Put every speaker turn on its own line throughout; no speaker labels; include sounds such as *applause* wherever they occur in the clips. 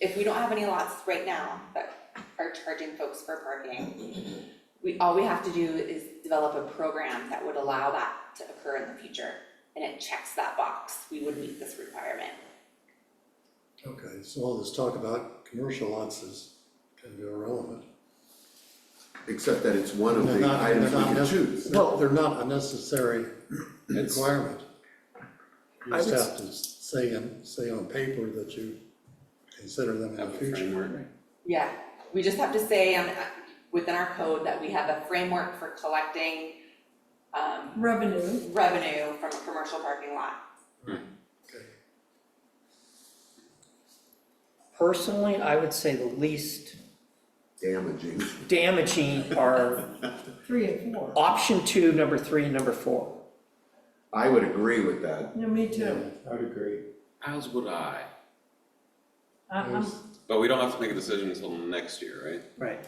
if we don't have any lots right now that are charging folks for parking, we, all we have to do is develop a program that would allow that to occur in the future. And it checks that box, we would meet this requirement.
Okay, so all this talk about commercial lots is kind of irrelevant.
except that it's one of
They're
the
not- they're
items we
not
can
nec-
choose.
They're, they're not a necessary
It's-
requirement. You
I
just
would
have to say in, say on paper that you consider them in
Have
the
a
future.
framework.
Yeah, we just have to say on, uh, within our code that we have a framework for collecting, um,
revenue.
revenue from a commercial parking lot.
Okay.
Personally, I would say the least
Damaging.
damaging are
Three and four.
option two, number three, and number four.
I would agree with that.
Yeah, me too.
I'd agree.
As would I.
I'm, I'm,
There's-
But we don't have to make a decision until next year, right?
Right.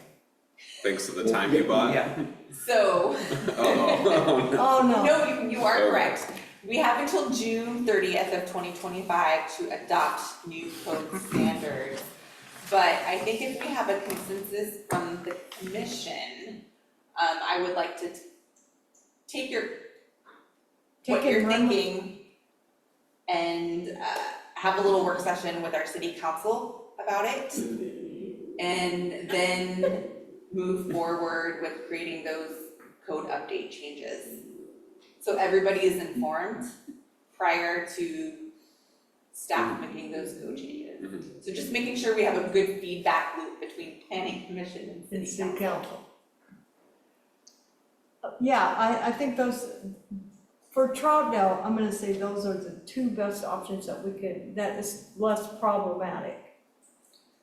Thanks to the time you bought?
Yeah,
So,
*laughs*
*laughs*
Oh,
oh, no.
no, you, you are correct. We have until June thirtieth of twenty twenty-five to adopt new
*laughs*
code standards. But I think if we have a consensus from the commission, um, I would like to t- take your what
Take it
you're
run with-
thinking and uh have a little work session with our city council about it. And then move forward with creating those code update changes. So everybody is informed prior to staff making those code changes.
no.
So just making sure we have a good feedback loop between planning commission and
It's
city
the
council.
council. Uh, Yeah, I, I think those, for Troutdale, I'm gonna say those are the two best options that we could, that is less problematic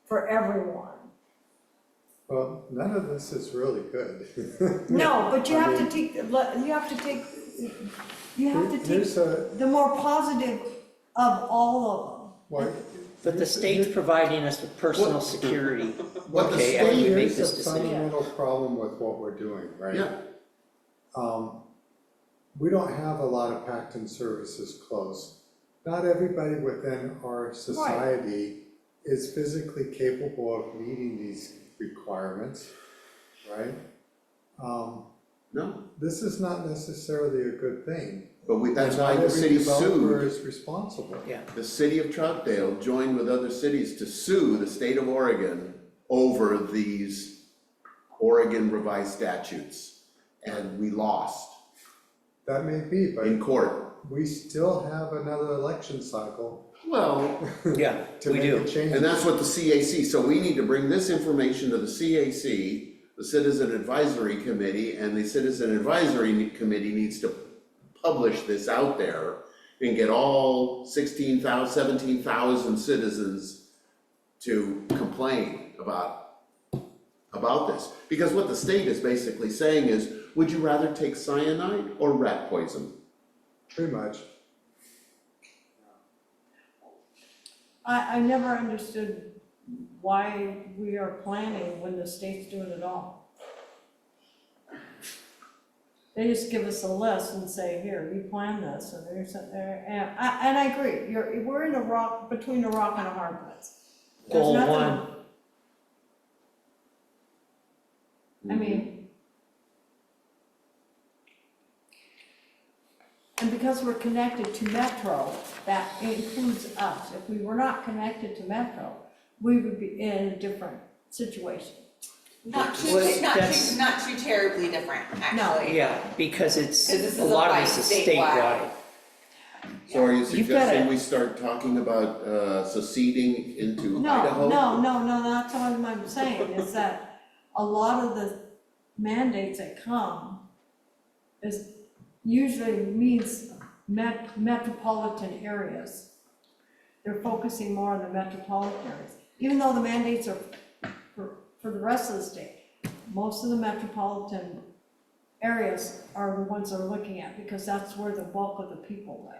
for everyone.
Well, none of this is really good. *laughs*
*laughs* No, but you
I
have to
mean-
take, let- you have to take, you have to take
Here's a,
the more positive of all
what.
but the state's providing us with personal security.
What the
Okay, after
state,
we make
here's the
this decision.
fundamental problem with what we're doing, right?
Yeah.
Um, we don't have a lot of Pacton services close. Not everybody within our society is physically capable of meeting these requirements, right? Um,
No,
this is not necessarily a good thing.
but we, that's
And
why
not
the
every
city
developer
sued,
Is responsible.
Yeah.
the city of Troutdale joined with other cities to sue the state of Oregon over these Oregon revised statutes. And we lost
That may be, but
in court.
we still have another election cycle
Well,
Yeah,
to
we
make a
do.
change.
and that's what the CAC, so we need to bring this information to the CAC, the Citizen Advisory Committee, and the Citizen Advisory Committee needs to publish this out there and get all 16,000, 17,000 citizens to complain about, about this. Because what the state is basically saying is, would you rather take cyanide or rat poison?
Pretty much.
of them. I, I never understood why we are planning when the state's doing it all. They just give us a list and say, here, you plan this, and there's, a- there, and I, and I agree, you're, we're in a rock, between a rock and a hard place. There's
Goal
nothing-
one,
I mean. And because we're connected to Metro, that includes us. If we were not connected to Metro, we would be in a different situation.
Not too,
Was-
not
that's-
too, not too terribly different, actually.
yeah, because it's,
'Cause this is
a
a
lot of
fight
this is
statewide.
statewide.
So are you
You've got
suggesting
it.
we start talking about uh, seceding into Idaho?
No, no, no, no, that's all I'm saying, is that a lot of the mandates that come is usually means met, metropolitan areas. They're focusing more on the metropolitan areas, even though the mandates are for, for the rest of the state. Most of the metropolitan areas are the ones they're looking at, because that's where the bulk of the people live.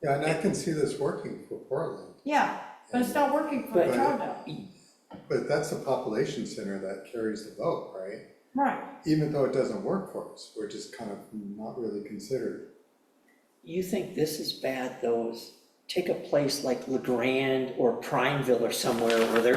Yeah, and I can see this working for Portland,
Yeah, but it's not working for
But-
Toronto,
but that's a population center that carries the vote, right?
right?
Even though it doesn't work for us, we're just kind of not really considered.
You think this is bad though, is take a place like La Grande or Primeville or somewhere where they're